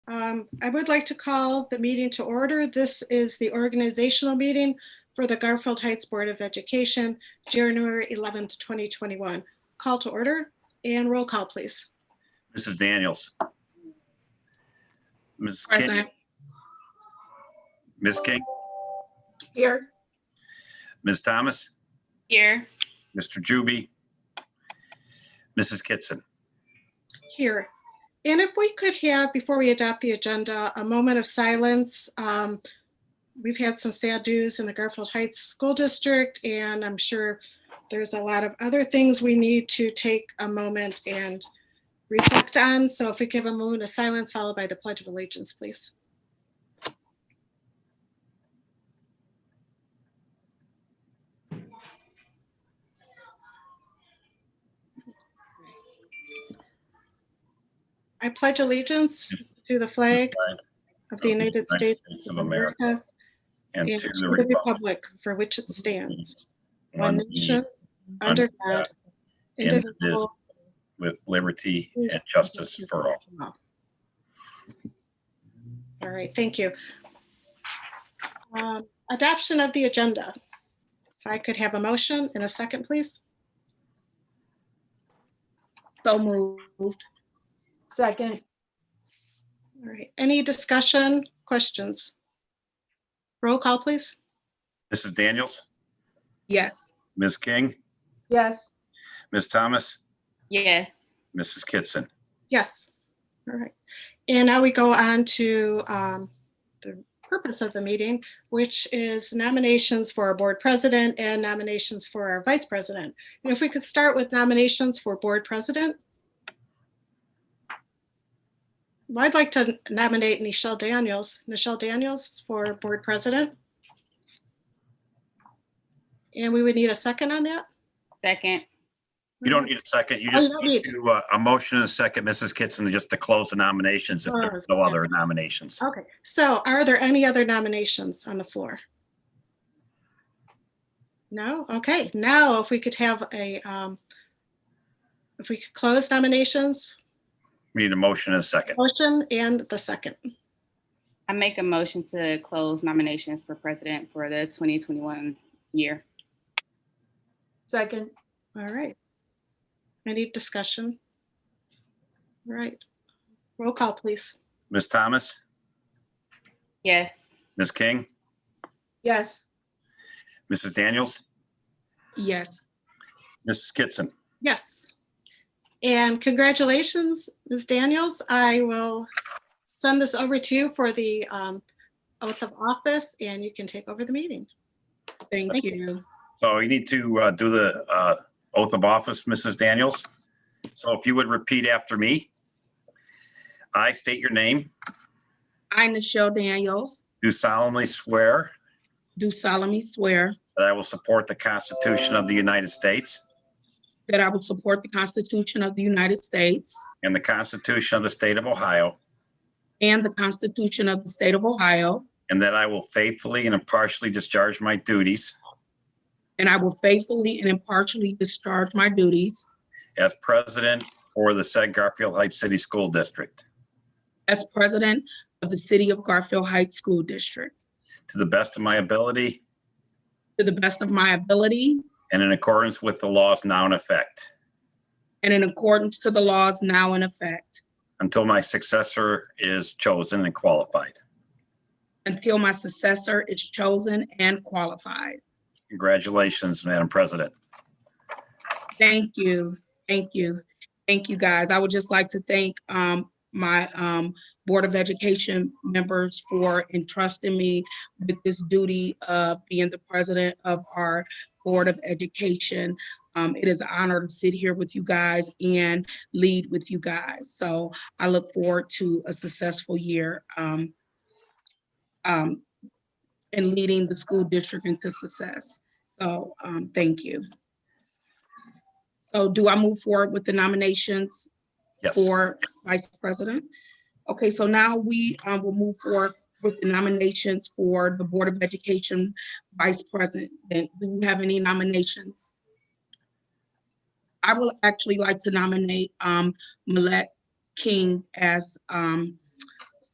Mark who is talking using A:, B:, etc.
A: Um, I would like to call the meeting to order. This is the organizational meeting for the Garfield Heights Board of Education, January 11th, 2021. Call to order and roll call, please.
B: Mrs. Daniels. Mrs. King,
C: Present.
B: Ms. King,
A: Here.
B: Ms. Thomas,
C: Here.
B: Mr. Juby, Mrs. Kitson.
A: Here. And if we could have, before we adopt the agenda, a moment of silence. Um, We've had some sad news in the Garfield Heights School District, and I'm sure there's a lot of other things we need to take a moment and reflect on. So if we give a moment of silence followed by the Pledge of Allegiance, please. I pledge allegiance to the flag of the United States of America
B: And
A: and
B: to the republic
A: republic for which it stands, one
B: one
A: nation,
B: nation,
A: under
B: under
A: God,
B: God,
A: indivisible.
B: with liberty and justice for all.
A: All right, thank you. Um, Adoption of the agenda. If I could have a motion in a second, please.
C: So moved.
D: Second,
A: All right, any discussion, questions? Roll call, please.
B: Mrs. Daniels,
C: Yes.
B: Ms. King,
D: yes,
B: Ms. Thomas,
C: Yes.
B: Mrs. Kitson.
A: Yes. All right. And now we go on to um, the purpose of the meeting, which is nominations for our board president and nominations for our vice president. And if we could start with nominations for board president. Well, I'd like to nominate Nichelle Daniels, Nichelle Daniels for board president. And we would need a second on that.
C: Second.
B: You don't need a second. You just
A: I love
B: need
A: it.
B: to, uh, a motion and a second, Mrs. Kitson, just to close the nominations if there's no
A: Close,
B: other nominations.
A: Okay, so are there any other nominations on the floor? No? Okay, now if we could have a, um, if we could close nominations,
B: We Need a motion and a second.
A: motion and the second.
C: I make a motion to close nominations for president for the 2021 year.
D: second,
A: All right. Any discussion? All right. Roll call, please.
B: Ms. Thomas,
C: Yes.
B: Ms. King,
D: yes,
B: Mrs. Daniels,
C: Yes.
B: Mrs. Kitson.
A: Yes. And congratulations, Ms. Daniels. I will send this over to you for the um, oath of office and you can take over the meeting. Thank
C: Thank you.
B: So you need to uh, do the uh, oath of office, Mrs. Daniels. So if you would repeat after me. I state your name,
E: I, Nichelle Daniels,
B: do solemnly swear
E: do solemnly swear
B: that I will support the Constitution of the United States
E: that I will support the Constitution of the United States
B: and the Constitution of the State of Ohio,
E: and the Constitution of the State of Ohio,
B: and that I will faithfully and impartially discharge my duties
E: and I will faithfully and impartially discharge my duties
B: as president for the said Garfield Heights City School District
E: as president of the City of Garfield Heights School District
B: to the best of my ability
E: to the best of my ability
B: and in accordance with the laws now in effect.
E: and in accordance to the laws now in effect
B: until my successor is chosen and qualified.
E: until my successor is chosen and qualified.
B: Congratulations, Madam President.
E: Thank you, thank you, thank you, guys. I would just like to thank um my um Board of Education members for entrusting me with this duty of being the president of our Board of Education. Um, it is an honor to sit here with you guys and lead with you guys. So I look forward to a successful year um um in leading the school district into success. So um, thank you. So do I move forward with the nominations
B: Yes.
E: for vice president? Okay, so now we uh, will move forward with the nominations for the Board of Education Vice President. Do we have any nominations? I will actually like to nominate um, Millette King as um,